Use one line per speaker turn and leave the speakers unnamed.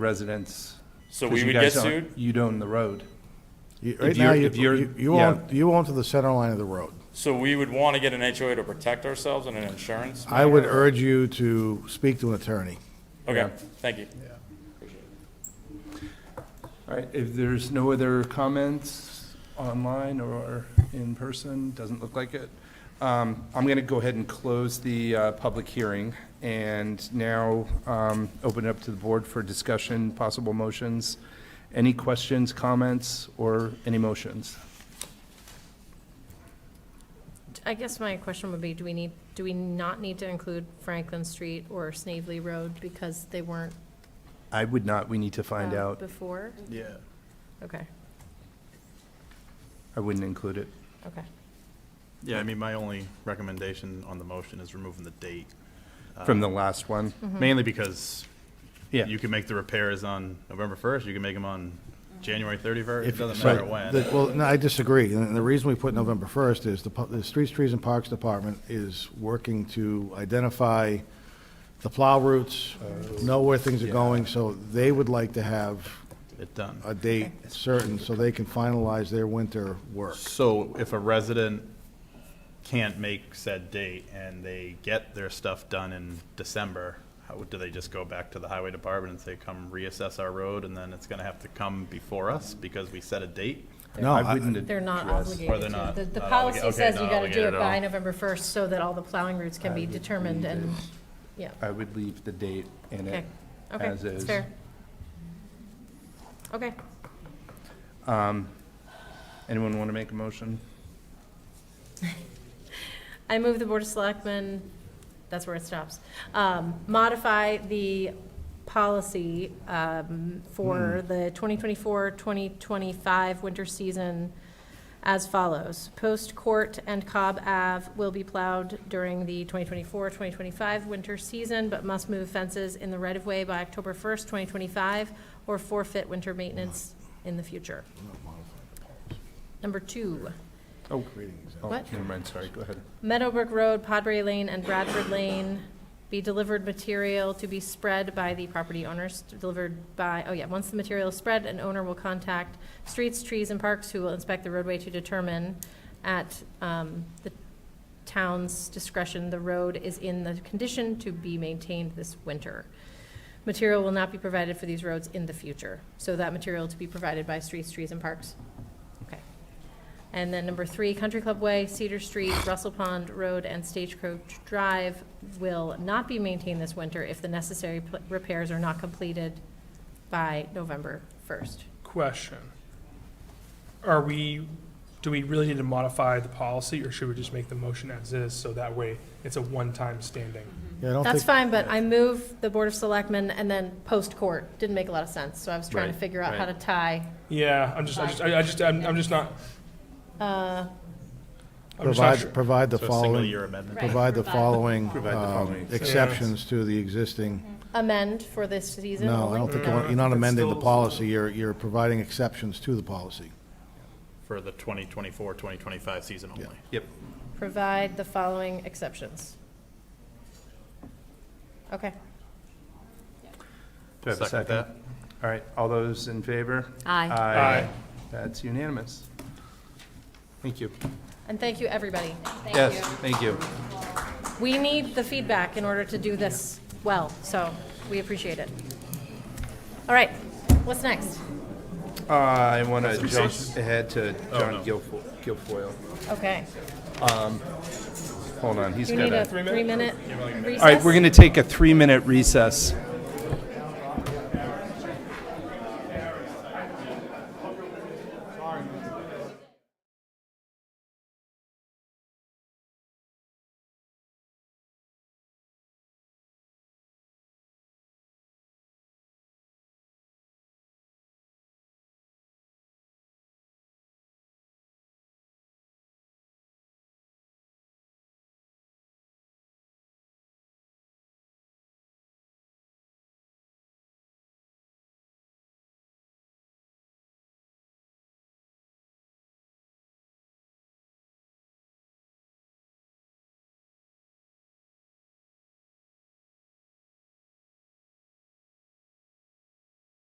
residents.
So
'cause
we
you
would
guys
get
own-
sued?
You'd own the road.
You-
If
Right now,
you're-
you,
if you're-
you- you
yeah.
own, you own to the center line of the road.
So we would want to get an HOA to protect ourselves and an insurance?
I would
matter?
urge you to speak to an attorney.
Okay, thank you.
All right, if there's no other comments online or in person, doesn't look like it. Um, I'm going to go ahead and close the uh, public hearing and now um, open it up to the board for discussion, possible motions. Any questions, comments, or any motions?
I guess my question would be, do we need, do we not need to include Franklin Street or Snavely Road because they weren't
I would not, we need to find
uh,
out.
before?
Yeah.
Okay,
I wouldn't include it.
okay.
Yeah, I mean, my only recommendation on the motion is removing the date,
Uh,
From the last one?
hmm.
mainly because
Yeah.
you can make the repairs on November 1st, you can make them on January 31st, it
If-
doesn't
but
matter when.
the- Well, no, I disagree, and the reason we put November 1st is the, pu- the Streets, Trees, and Parks Department is working to identify the plow routes,
Oh.
know where things are going, so they would like to have
It's done.
a date certain, so they can finalize their winter work.
So if a resident can't make said date and they get their stuff done in December, how, do they just go back to the highway department and say, come reassess our road, and then it's gonna have to come before us because we set a date?
No,
I
I-
wouldn't
They're not
address-
Or
obligated to.
they're not-
The, the
not obliga-
policy
okay,
says you
not
gotta do it
obligated at
by
all.
November first so that all the plowing routes can be determined and, yeah,
I would leave the date in
okay,
it.
okay,
as
that's
is.
fair. Okay,
Anyone want to make a motion?
I move the Board of Selectmen, that's where it stops, um, modify the policy, um, for the 2024, 2025 winter season as follows. Post Court and Cobb Ave will be plowed during the 2024, 2025 winter season, but must move fences in the right-of-way by October 1st, 2025, or forfeit winter maintenance in the future. Number two,
Oh, oh,
What?
Never mind, sorry, go ahead.
Meadowbrook Road, Podbury Lane, and Bradford Lane be delivered material to be spread by the property owners, delivered by, oh yeah, once the material is spread, an owner will contact Streets, Trees, and Parks, who will inspect the roadway to determine at um, the town's discretion, the road is in the condition to be maintained this winter. Material will not be provided for these roads in the future, so that material to be provided by Streets, Trees, and Parks. Okay. And then number three, Country Club Way, Cedar Street, Russell Pond Road, and Stagecoach Drive will not be maintained this winter if the necessary pl- repairs are not completed by November 1st.
Question. Are we, do we really need to modify the policy, or should we just make the motion as is, so that way it's a one-time standing?
Yeah, I don't
That's
think,
fine, but I move the Board of Selectmen and then post-court. Didn't make a lot of sense, so I was trying to
Right,
figure out how to tie.
Yeah, I'm just, I just, I I just, I'm, I'm just not. I'm just not sure.
provide, provide the
So a single
following,
year amendment.
Right.
provide the
Provide the
following
Provide the
um,
following
exceptions to the existing.
Amend for this season
No, I don't
only.
think, you want- you're not amending the policy, you're, you're providing exceptions to the policy.
for the 2024, 2025 season only.
Yep.
Provide the following exceptions. Okay.
Do I have a
Second
second?
that.
All right, all those in favor?
Aye.
Aye.
That's unanimous. Thank you.
And thank you, everybody.
Yes, thank you.
We need the feedback in order to do this well, so we appreciate it. All right, what's next?
Uh, I want to jump ahead to John Guilfoyle. Guilfoyle.
Okay,
Hold on, he's
do you need
got
a
a.
three-minute
All right,
recess?
we're going to take a three-minute recess.